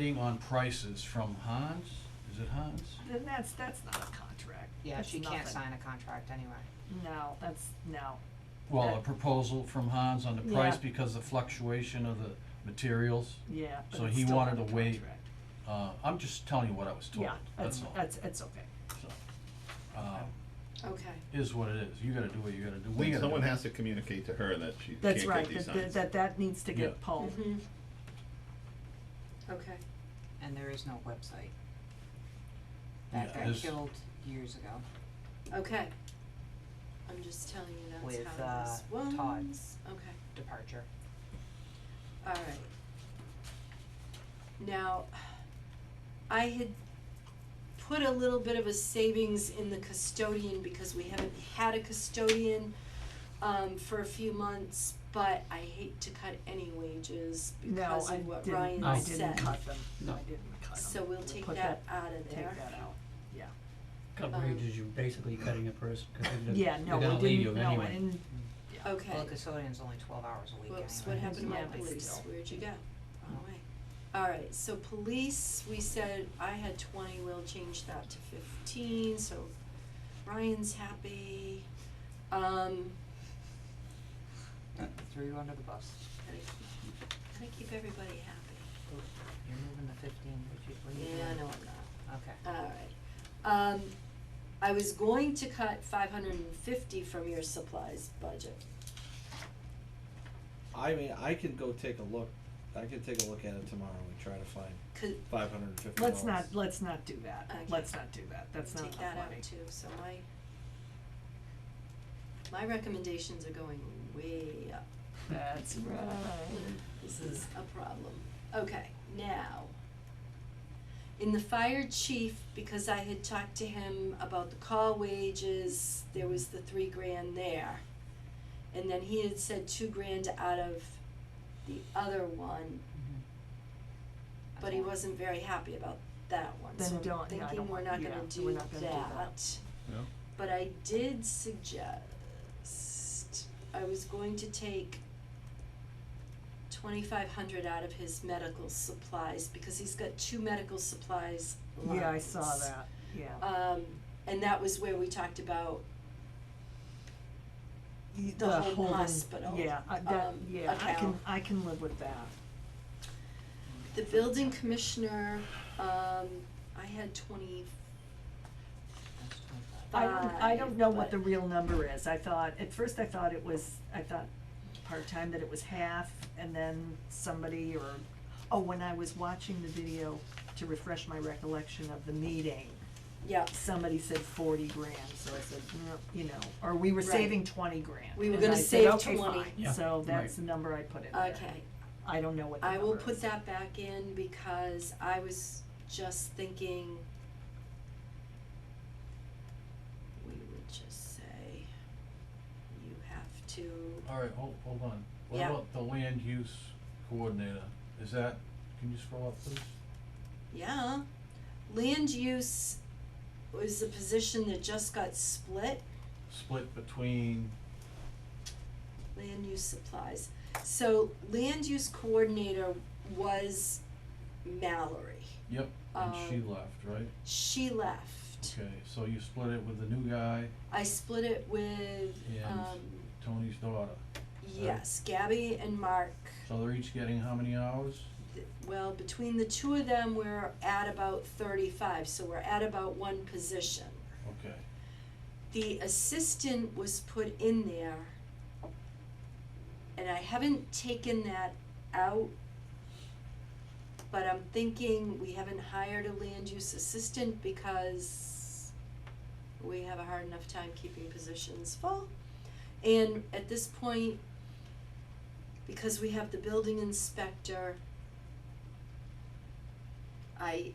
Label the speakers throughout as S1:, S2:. S1: Bidding on prices from Hans, is it Hans?
S2: Then that's, that's not a contract.
S3: Yeah,
S2: That's
S3: she can't
S2: nothing.
S3: sign a contract anyway.
S2: No, that's, no.
S1: Well,
S2: That-
S1: a proposal from Hans on the price
S2: Uh, Yeah.
S1: because the fluctuation of the materials.
S2: Yeah, but
S1: So
S2: it's
S1: he
S2: still
S1: wanted
S2: not
S1: to
S2: a
S1: wait.
S2: contract.
S1: Uh, I'm just telling you what I was told,
S2: Yeah,
S1: that's
S2: that's,
S1: all.
S2: that's, it's okay.
S1: So, um,
S3: Okay.
S1: Is what it is. You gotta do what you gotta do. We gotta
S4: Then
S1: do
S4: someone
S1: it.
S4: has to communicate to her that she can't
S2: That's
S4: get
S2: right,
S4: these
S2: that- that,
S4: signs.
S2: that, that needs to
S1: Yeah.
S2: get polled.
S3: Mm-hmm.
S5: Mm-hmm. Okay.
S3: And there is no website. That
S1: Yeah,
S3: got
S1: this-
S3: killed years ago.
S5: Okay. I'm just telling you that's
S3: With,
S5: how this
S3: uh,
S5: was.
S3: Todd's.
S5: Okay.
S3: Departure.
S5: All right. Now, I had put a little bit of a savings in the custodian because we haven't had a custodian um, for a few months, but I hate to cut any wages
S2: No,
S5: because
S2: I
S5: of what Ryan
S2: didn't,
S5: said.
S2: I didn't cut them, I didn't cut them.
S5: So we'll take
S2: Put
S5: that out of
S2: Take
S5: there.
S2: that out, yeah.
S6: Cut
S5: Um,
S6: wages, you're basically cutting a person, because they're,
S2: Yeah,
S6: they're
S2: no, we
S6: gonna leave you
S2: didn't,
S6: anyway.
S2: no, I didn't,
S5: Okay.
S3: Well, the custodian's only twelve hours a week anyway.
S5: Whoops, what happened to my
S2: Yeah, but
S5: police?
S2: still.
S5: Where'd you go? Wrong way. Alright, so police, we said I had twenty, we'll change that to fifteen, so Ryan's happy. Um,
S3: Threw you under the bus.
S5: gotta keep, gotta keep everybody happy.
S3: Oop, You're moving the fifteen, which you, what are you doing?
S5: Yeah, no, I'm
S3: Okay.
S5: not. Alright. Um, I was going to cut five hundred and fifty from your supplies budget.
S7: I mean, I could go take a look. I could take a look at it tomorrow and try to find
S5: Could,
S7: five hundred and fifty
S2: let's not, let's not do that,
S5: Okay.
S2: let's not do that, that's not
S5: take
S2: enough
S5: that
S2: money.
S5: out too, so my my recommendations are going way up.
S2: That's right.
S5: This is a problem. Okay, now. In the fire chief, because I had talked to him about the call wages, there was the three grand there. And then he had said two grand out of the other one,
S3: Mhm.
S5: but he
S3: Okay.
S5: wasn't very happy about that one,
S2: Then
S5: so
S2: don't- yeah, I
S5: I'm thinking
S2: don't
S5: we're
S2: want-
S5: not
S2: yeah,
S5: gonna
S2: we're
S5: do
S2: not gonna do
S5: that.
S4: No?
S5: But I did suggest, I was going to take twenty-five hundred out of his medical supplies, because he's got two medical supplies lines.
S2: Yeah, I saw that, yeah.
S5: Um, and that was where we talked about
S2: Y-
S5: the whole
S2: holding-
S5: hospital,
S2: Yeah, I, that,
S5: um,
S2: yeah, I can,
S5: account.
S2: I can live with that,
S5: the building commissioner, um, I had twenty,
S3: That's twenty-five.
S2: I
S5: Uh,
S2: don't, I don't know what
S5: Five,
S2: the
S5: but-
S2: real number is, I thought, at first I thought it was, I thought part-time that it was half, and then somebody or, oh, when I was watching the video to refresh my recollection of the meeting,
S5: yeah,
S2: somebody said forty grand, so I said, no, you know, or we were
S5: Right.
S2: saving twenty grand.
S5: We were
S2: and
S5: gonna
S2: I said,
S5: save
S2: "Okay,
S5: 20."
S2: fine."
S1: Yeah,
S2: So that's
S1: right.
S2: the number I put in there.
S5: okay.
S2: I don't know what the
S5: I
S2: number
S5: will put
S2: is.
S5: that back in because I was just thinking we would just say you have to,
S1: All right, hold, hold on. What
S5: Yeah.
S1: about the land use coordinator? Is that, can you scroll up please?
S5: yeah. Land use was a position that just got split,
S1: Split between,
S5: land use supplies. So land use coordinator was Mallory.
S1: yep, and she
S5: Um,
S1: left, right?
S5: She left.
S1: Okay, so you split it with the new guy,
S5: I split it with,
S1: And-
S5: um,
S1: Tony's daughter.
S5: yes, Gabby and Mark.
S1: So they're each getting how many hours?
S5: th- well, between the two of them, we're at about thirty-five, so we're at about one position.
S1: Okay,
S5: The assistant was put in there. And I haven't taken that out. But I'm thinking we haven't hired a land use assistant because we have a hard enough time keeping positions full. And at this point, because we have the building inspector, I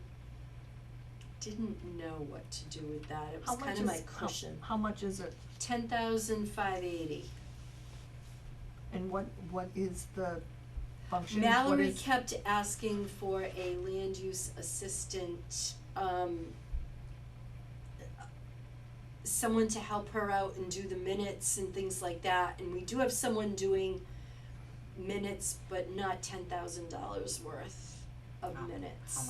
S5: didn't know what to do with that. It
S2: How
S5: was
S2: much
S5: kind of my
S2: is- how-
S5: cushion.
S2: How much is it,
S5: Ten thousand five eighty.
S2: and what, what is the function, what
S5: Mallory
S2: is,
S5: kept asking for a land use assistant, um, someone to help her out and do the minutes and things like that, and we do have someone doing minutes, but not ten thousand dollars worth. of
S3: How- how
S5: minutes.